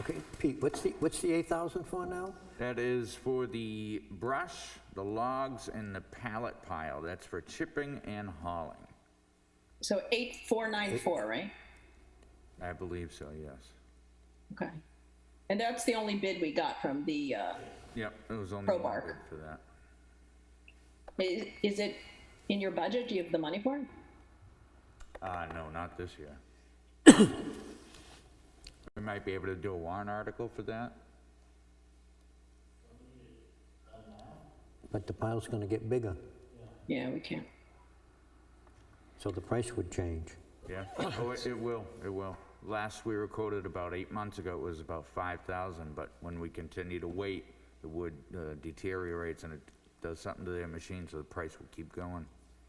Okay, Pete, what's the, what's the 8,000 for now? That is for the brush, the logs, and the pallet pile. That's for chipping and hauling. So 8494, right? I believe so, yes. Okay. And that's the only bid we got from the, uh, Yep, it was only one Crowbar. bid for that. is, is it in your budget? Do you have the money for it? Uh, no, not this year. We might be able to do a warrant article for that. But the pile's going to get bigger, Yeah, we can. so the price would change. Yeah, oh, it it will, it will. Last we were quoted about eight months ago, it was about 5,000, but when we continue to wait, the wood uh, deteriorates and it does something to their machine, so the price will keep going.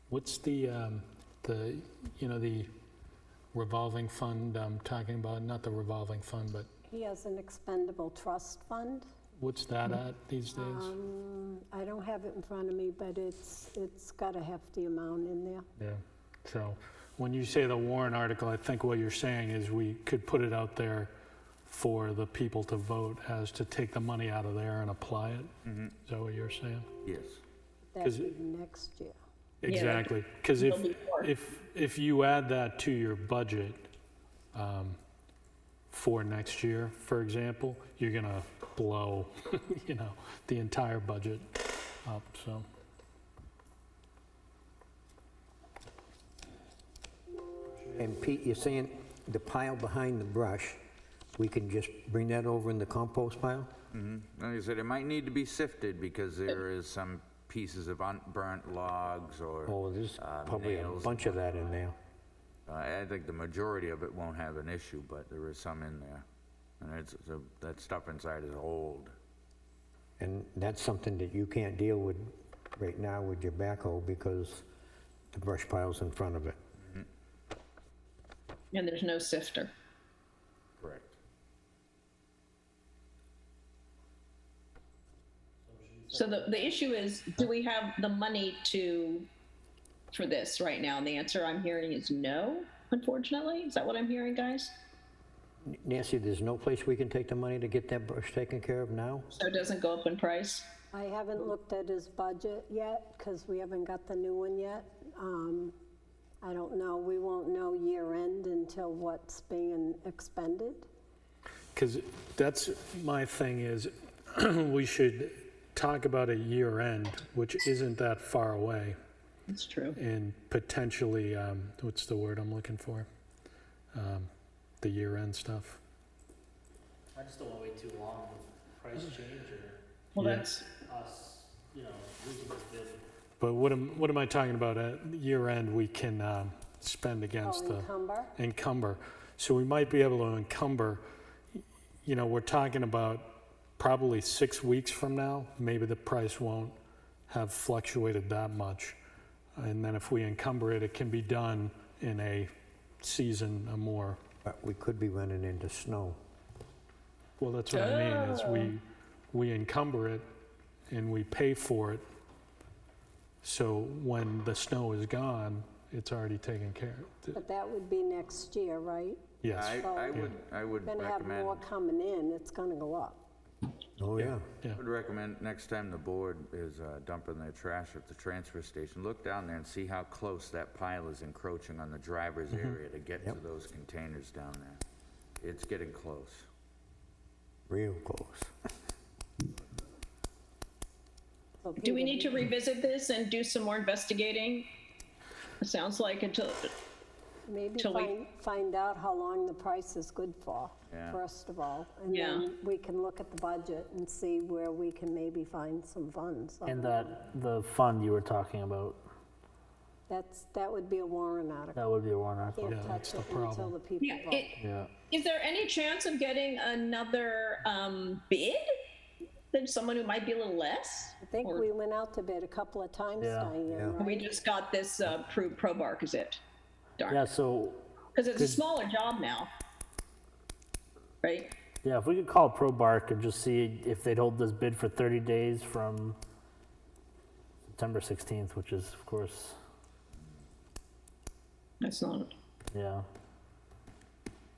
What's the, um, the, you know, the revolving fund I'm talking about, not the revolving fund, but He has an expendable trust fund. what's that at these days? Um, I don't have it in front of me, but it's, it's got a hefty amount in there. Yeah, so when you say the Warren article, I think what you're saying is we could put it out there for the people to vote as to take the money out of there and apply it? Is that what you're saying? Yes. That 'Cause would be next year. Exactly, because if, There'll be more. if, if you add that to your budget um, for next year, for example, you're gonna blow, you know, the entire budget up, so. And Pete, you're saying the pile behind the brush, we can just bring that over in the compost pile? Mm-hmm. Like I said, it might need to be sifted because there is some pieces of unburnt logs or, Oh, there's Uh, probably a nails. bunch of that in there. uh, I think the majority of it won't have an issue, but there is some in there. And it's, so that stuff inside is old. And that's something that you can't deal with right now with your backhoe because the brush pile's in front of it. And there's no sifter. Correct. So the, the issue is, do we have the money to, for this right now? And the answer I'm hearing is no, unfortunately. Is that what I'm hearing, guys? Nancy, there's no place we can take the money to get that brush taken care of now? So it doesn't go up in price? I haven't looked at his budget yet, because we haven't got the new one yet. Um, I don't know, we won't know year end until what's being expended. Because that's, my thing is, we should talk about a year end, which isn't that far away, That's true. and potentially, um, what's the word I'm looking for? Um, The year end stuff. I just don't want to wait too long with price change or Well, Yeah. that's, us, you know, losing this bid. But what am, what am I talking about? At year end, we can um, spend against Oh, the encumber? encumber. So we might be able to encumber, you know, we're talking about probably six weeks from now, maybe the price won't have fluctuated that much. And then if we encumber it, it can be done in a season or more. But Uh, we could be running into snow. Well, that's what I mean, is we, we encumber it and we pay for it. So when the snow is gone, it's already taken care of. But that would be next year, right? Yes, I, I would, I would Gonna have recommend, more coming in, it's gonna go up. Oh, yeah. yeah. would recommend next time the board is uh, dumping their trash at the transfer station, look down there and see how close that pile is encroaching on the driver's area to get to those containers down there. It's getting close. Real close. So do we Peter, need to revisit this and do some more investigating? It sounds like until, Maybe till we- find, find out how long the price is good for, Yeah. first of all. And Yeah. then we can look at the budget and see where we can maybe find some funds. Um, And that, the fund you were talking about, That's, that would be a warrant article. that would be a warrant article. Can't Yeah, that's touch it the until problem. the people yeah, vote. it, Yeah. Is there any chance of getting another um, bid than someone who might be a little less? I think we went out to bid a couple of times, Yeah. Yeah. Diane, We right? just got this uh, pro pro bar, is it? Yeah, Darn, so, because it's a smaller job now, right? yeah, if we could call ProBark and just see if they'd hold this bid for 30 days from September 16th, which is, of course, That's not. yeah,